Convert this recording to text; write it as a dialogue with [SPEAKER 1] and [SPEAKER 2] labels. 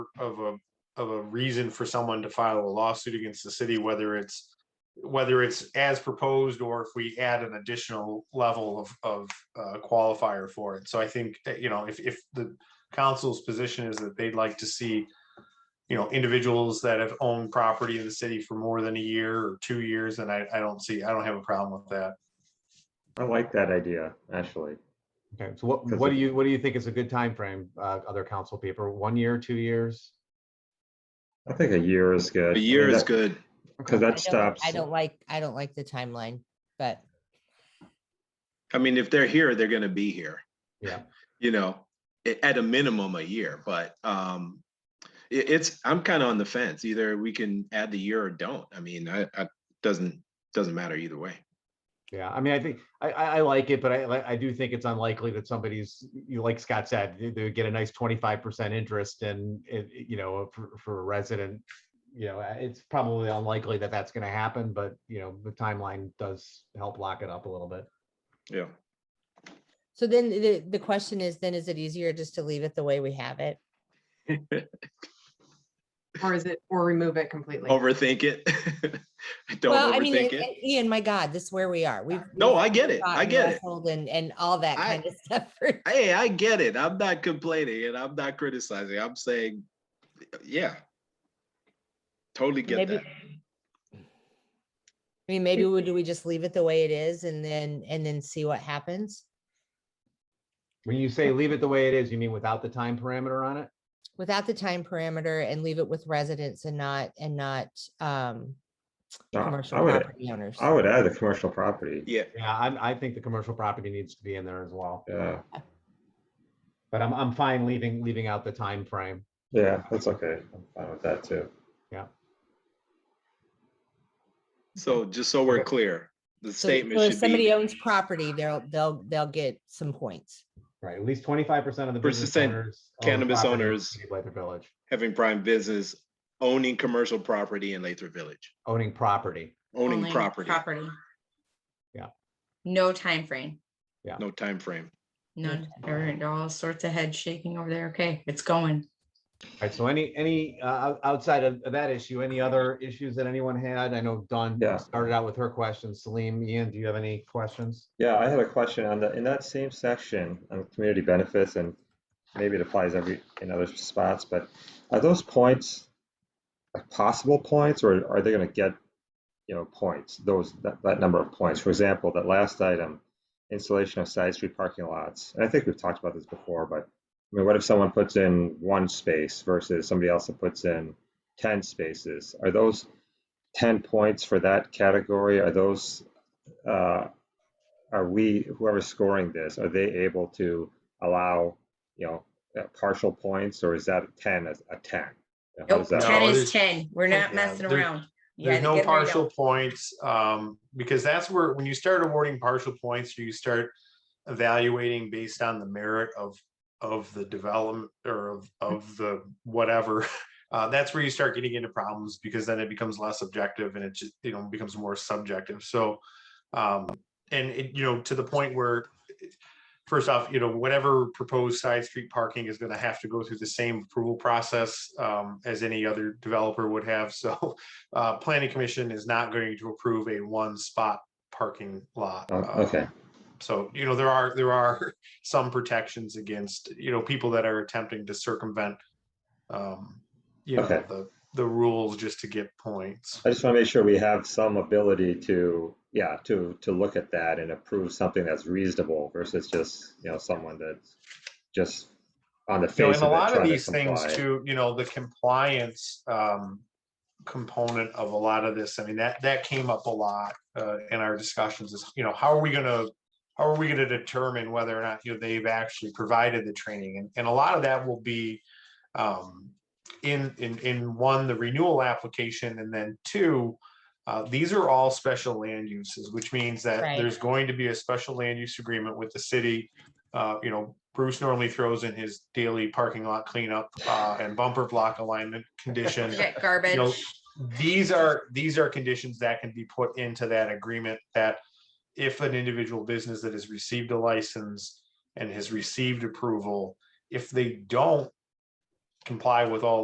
[SPEAKER 1] of a, of a reason for someone to file a lawsuit against the city, whether it's, whether it's as proposed or if we add an additional level of, of uh, qualifier for it. So I think, that, you know, if, if the council's position is that they'd like to see, you know, individuals that have owned property in the city for more than a year or two years, then I, I don't see, I don't have a problem with that.
[SPEAKER 2] I like that idea, actually.
[SPEAKER 3] Okay, so what,
[SPEAKER 2] 'Cause
[SPEAKER 3] what do
[SPEAKER 2] it-
[SPEAKER 3] you, what do you think is a good time frame? uh, other council people, one year, two years?
[SPEAKER 2] I think a year is good.
[SPEAKER 4] A year is good.
[SPEAKER 2] Because that
[SPEAKER 3] Okay.
[SPEAKER 5] I don't-
[SPEAKER 2] stops.
[SPEAKER 5] I don't like, I don't like the timeline, but
[SPEAKER 4] I mean, if they're here, they're gonna be here.
[SPEAKER 3] Yeah.
[SPEAKER 4] You know, a- at a minimum a year, but um it, it's, I'm kind of on the fence. Either we can add the year or don't. I mean, I, I, doesn't, doesn't matter either way.
[SPEAKER 3] Yeah, I mean, I think, I, I, I like it, but I, li- I do think it's unlikely that somebody's, you, like Scott said, they, they would get a nice twenty-five percent interest and, it, it- you know, for, for a resident. You know, uh, it's probably unlikely that that's gonna happen, but, you know, the timeline does help lock it up a little bit.
[SPEAKER 4] Yeah.
[SPEAKER 5] so then the, the question is, then is it easier just to leave it the way we have it?
[SPEAKER 6] Or is it, or remove it completely?
[SPEAKER 4] Overthink it. Don't
[SPEAKER 5] Well, I mean,
[SPEAKER 4] overthink
[SPEAKER 5] and-
[SPEAKER 4] it.
[SPEAKER 5] and Ian, my God, this is where we are. We've.
[SPEAKER 4] No,
[SPEAKER 5] we've
[SPEAKER 4] I get it.
[SPEAKER 5] fought
[SPEAKER 4] I
[SPEAKER 5] and
[SPEAKER 4] get it.
[SPEAKER 5] wrestled And, and all that
[SPEAKER 4] I-
[SPEAKER 5] kind of stuff. for-
[SPEAKER 4] Hey, I get it. I'm not complaining and I'm not criticizing. I'm saying, yeah. Totally get
[SPEAKER 5] Maybe-
[SPEAKER 4] that.
[SPEAKER 5] I mean, maybe would, do we just leave it the way it is and then, and then see what happens
[SPEAKER 3] When you say leave it the way it is, you mean without the time parameter on it?
[SPEAKER 5] without the time parameter and leave it with residents and not, and not, um,
[SPEAKER 2] No,
[SPEAKER 5] commercial
[SPEAKER 2] I would-
[SPEAKER 5] property owners.
[SPEAKER 2] I would add the commercial property.
[SPEAKER 4] Yeah.
[SPEAKER 3] Yeah, I, I think the commercial property needs to be in there as well,
[SPEAKER 2] Yeah,
[SPEAKER 3] but I'm, I'm fine leaving, leaving out the time frame.
[SPEAKER 2] yeah, that's okay. I'm fine with that too.
[SPEAKER 4] So just so we're
[SPEAKER 3] Okay.
[SPEAKER 4] clear, the
[SPEAKER 5] So- so
[SPEAKER 4] statement
[SPEAKER 5] if
[SPEAKER 4] should be.
[SPEAKER 5] Somebody owns property, they'll, they'll, they'll get some points.
[SPEAKER 3] Right, at least twenty-five percent of the business
[SPEAKER 4] 100%
[SPEAKER 3] owners. own
[SPEAKER 4] cannabis
[SPEAKER 3] property in the
[SPEAKER 4] owners.
[SPEAKER 3] city of Lathrop Village,
[SPEAKER 4] having prime business, owning commercial property in Lathrop Village,
[SPEAKER 3] owning property.
[SPEAKER 4] owning
[SPEAKER 7] Only
[SPEAKER 4] property,
[SPEAKER 7] Property.
[SPEAKER 3] Yeah.
[SPEAKER 7] No time frame.
[SPEAKER 4] no time frame.
[SPEAKER 7] none,
[SPEAKER 5] timeframe.
[SPEAKER 7] everyone, all sorts of head shaking over there. Okay, it's going.
[SPEAKER 3] Right, so any, any, uh, out- outside of of that issue, any other issues that anyone had? I know Dawn
[SPEAKER 2] Yeah.
[SPEAKER 3] started out with her questions. Salim, Ian, do you have any questions?
[SPEAKER 2] Yeah, I had a question on the, in that same section on community benefits and maybe it applies every, in other spots, but are those points like possible points or are they gonna get, you know, points, those, that, that number of points? For example, that last item, installation of side street parking lots. And I think we've talked about this before, but I mean, what if someone puts in one space versus somebody else that puts in ten spaces? Are those ten points for that category? Are those, uh, are we, whoever's scoring this, are they able to allow, you know, uh, partial points or is that a ten as a ten? You know, how
[SPEAKER 7] Nope,
[SPEAKER 2] does that
[SPEAKER 7] ten
[SPEAKER 1] No,
[SPEAKER 7] is
[SPEAKER 1] there's-
[SPEAKER 7] ten. We're not
[SPEAKER 1] yeah,
[SPEAKER 7] messing
[SPEAKER 1] there-
[SPEAKER 7] around. You
[SPEAKER 1] There's no
[SPEAKER 7] gotta get right
[SPEAKER 1] partial
[SPEAKER 7] out.
[SPEAKER 1] points, um, because that's where, when you start awarding partial points, you start evaluating based on the merit of, of the development or of,
[SPEAKER 7] Mm.
[SPEAKER 1] of the whatever. Uh, that's where you start getting into problems because then it becomes less objective and it just, you know, becomes more subjective. So, um, and it, you know, to the point where first off, you know, whatever proposed side street parking is gonna have to go through the same approval process, um, as any other developer would have. So, uh, planning commission is not going to approve a one spot parking lot.
[SPEAKER 2] Oh,
[SPEAKER 1] uh,
[SPEAKER 2] Okay,
[SPEAKER 1] So, you know, there are, there are some protections against, you know, people that are attempting to circumvent, um, you know,
[SPEAKER 2] Okay.
[SPEAKER 1] the, the rules just to get points.
[SPEAKER 2] I just want to make sure we have some ability to, yeah, to, to look at that and approve something that's reasonable versus just, you know, someone that's just on the
[SPEAKER 1] You know,
[SPEAKER 2] face
[SPEAKER 1] and a
[SPEAKER 2] of it
[SPEAKER 1] lot of
[SPEAKER 2] trying to
[SPEAKER 1] these things
[SPEAKER 2] comply.
[SPEAKER 1] too, you know, the compliance, um, component of a lot of this, I mean, that, that came up a lot, uh, in our discussions is, you know, how are we gonna, how are we gonna determine whether or not, you know, they've actually provided the training? And, and a lot of that will be, um, in, in, in one, the renewal application, and then two, uh, these are all special land uses, which means that
[SPEAKER 5] Right.
[SPEAKER 1] there's going to be a special land use agreement with the city. Uh, you know, Bruce normally throws in his daily parking lot cleanup, uh, and bumper block alignment condition.
[SPEAKER 7] Get garbage.
[SPEAKER 1] These are, these are conditions that can be put into that agreement that if an individual business that has received a license and has received approval, if they don't comply with all